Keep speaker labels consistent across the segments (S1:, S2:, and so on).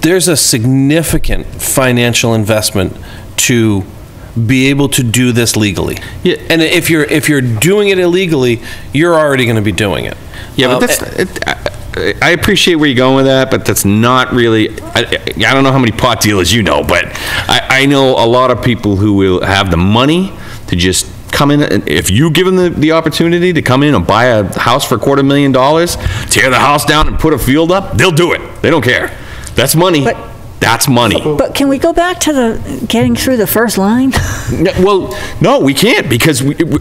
S1: there's a significant financial investment to be able to do this legally.
S2: Yeah.
S1: And if you're, if you're doing it illegally, you're already going to be doing it.
S2: Yeah,
S1: Um,
S2: but that's, it- I- I appreciate where you're going with that, but that's not really, I, I I don't know how many pot dealers you know, but I, I know a lot of people who will have the money to just come in, and if you give them the, the opportunity to come in and buy a house for a quarter million dollars, tear the house down and put a field up, they'll do it. They don't care. That's money.
S3: But-
S2: That's money.
S3: But can we go back to the, getting through the first line?
S2: No, Well, no, we can't because we, we-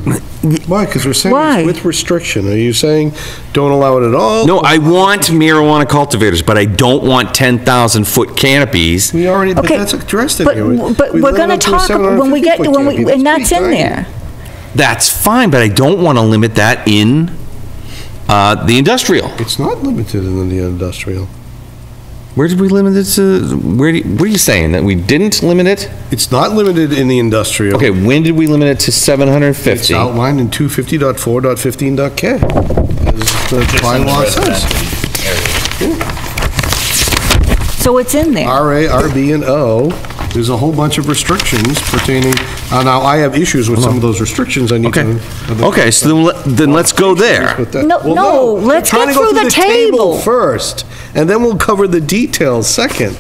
S4: Why? Because we're saying
S3: Why?
S4: it's with restriction. Are you saying don't allow it at all?
S2: no, I want marijuana cultivators, but I don't want 10,000 foot canopies.
S4: We already, but
S3: Okay,
S4: that's addressed in
S3: but-
S4: here. We-
S3: But
S4: we
S3: we're
S4: let it
S3: going to
S4: up a
S3: talk, when we get,
S4: 750
S3: when we,
S4: canopy.
S3: and
S4: That's
S3: that's in
S4: pretty tiny.
S3: there.
S2: That's fine, but I don't want to limit that in uh, the industrial.
S4: It's not limited in the industrial.
S2: Where did we limit it to? Where, do- what are you saying, that we didn't limit it?
S4: It's not limited in the industrial.
S2: Okay, when did we limit it to
S4: It's
S2: 750?
S4: outlined in 250.4.15.k, as the bylaw says.
S3: So it's in there.
S4: RA, RB, and O, there's a whole bunch of restrictions pertaining, uh, now, I have issues with some of those restrictions I need
S2: Okay,
S4: to.
S2: okay, so then let- then let's go there.
S4: But that-
S3: No,
S4: well,
S3: no,
S4: we're
S3: let's
S4: trying
S3: get
S4: to go
S3: through the table.
S4: First, and then we'll cover the details second.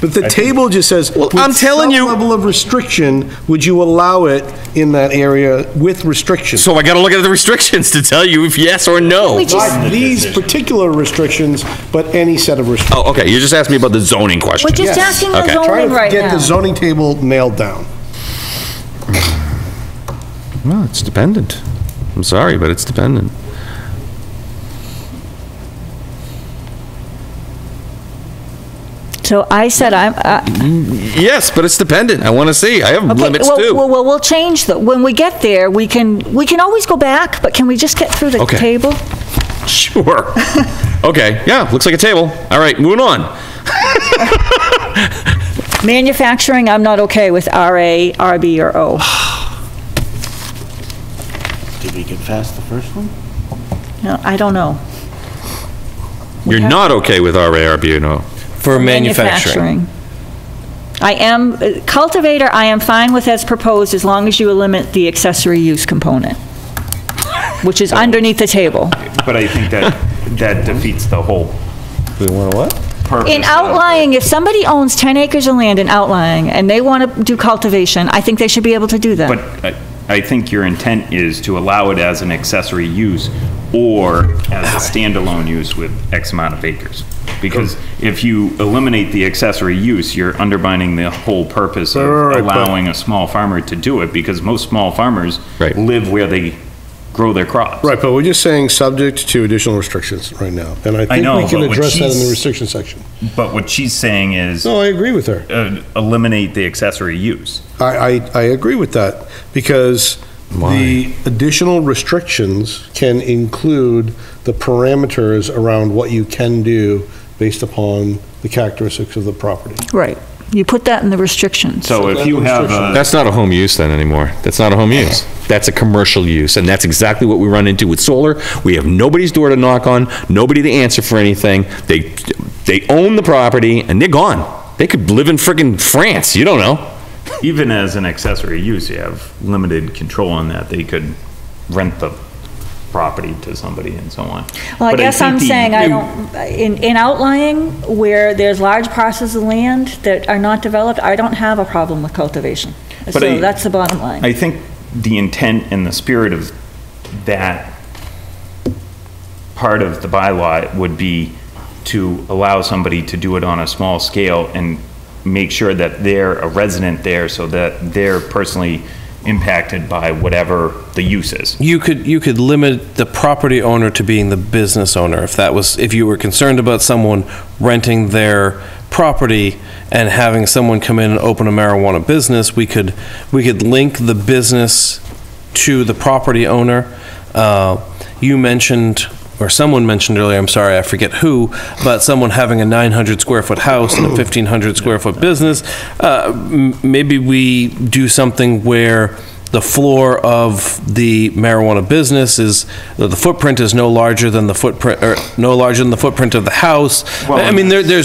S4: But the table just says,
S2: Well, I'm
S4: with
S2: telling
S4: some
S2: you-
S4: level of restriction, would you allow it in that area with restrictions?
S2: So I got to look at the restrictions to tell you if yes or no.
S3: We just-
S4: Not these particular restrictions, but any set of restrictions.
S2: Oh, okay, you just asked me about the zoning question.
S3: We're just
S4: Yes.
S3: asking the
S2: Okay.
S4: Try
S3: zoning
S4: to
S3: right
S4: get the
S3: now.
S4: zoning table nailed down.
S2: No, it's dependent. I'm sorry, but it's dependent.
S3: So I said I'm, I-
S2: Yes, but it's dependent. I want to see. I have
S3: okay,
S2: limits
S3: well,
S2: too.
S3: well, well, we'll change the, when we get there, we can, we can always go back, but can we just get through the
S2: Okay.
S3: table?
S2: Sure. Okay, yeah, looks like a table. All right, moving on.
S3: Manufacturing, I'm not okay with RA, RB, or O.
S5: Did we get past the first one?
S3: No, I don't know.
S2: You're
S3: have-
S2: not okay with RARB, no?
S1: For manufacturing.
S3: I am, uh, cultivator, I am fine with as proposed, as long as you eliminate the accessory use component, which is underneath the table.
S6: But I think that, that defeats the whole
S2: We want what?
S6: purpose.
S3: In outlying, if somebody owns 10 acres of land in outlying, and they want to do cultivation, I think they should be able to do
S6: But
S3: that.
S6: I- I think your intent is to allow it as an accessory use or as a standalone use with X amount of acres. Because if you eliminate the accessory use, you're undermining the whole purpose
S4: Right,
S6: of
S4: right, right, but-
S6: allowing a small farmer to do it, because most small farmers
S2: Right.
S6: live where they grow their crops.
S4: Right, but we're just saying subject to additional restrictions right now. And I think
S6: know,
S4: we can
S6: but what
S4: address that in the
S6: she's-
S4: restriction section.
S6: But what she's saying is
S4: No, I agree with her.
S6: uh, eliminate the accessory use.
S4: I, I, I agree with that, because the additional restrictions can include the parameters around what you can do based upon the characteristics of the property.
S3: Right. You put that in the restrictions.
S6: So if you have a.
S2: That's not a home use then anymore. That's not a home use. That's a commercial use, and that's exactly what we run into with solar. We have nobody's door to knock on, nobody to answer for anything. They, they own the property, and they're gone. They could live in frickin' France, you don't know.
S6: even as an accessory use, you have limited control on that. They could rent the property to somebody and so on.
S3: Well, I
S6: But
S3: guess
S6: think
S3: I'm
S6: the-
S3: saying I don't, in, in outlying, where there's large parcels of land that are not developed, I don't have a problem with cultivation. So
S6: But I-
S3: that's the bottom line.
S6: I think the intent and the spirit of that part of the bylaw would be to allow somebody to do it on a small scale and make sure that they're a resident there so that they're personally impacted by whatever the use is.
S1: You could, you could limit the property owner to being the business owner if that was, if you were concerned about someone renting their property and having someone come in and open a marijuana business, we could, we could link the business to the property owner. Uh, You mentioned, or someone mentioned earlier, I'm sorry, I forget who, about someone having a 900 square foot house and a 1,500 square foot business. Uh, m- Maybe we do something where the floor of the marijuana business is, the footprint is no larger than the footprint, or no larger than the footprint of the house. I mean, there, there's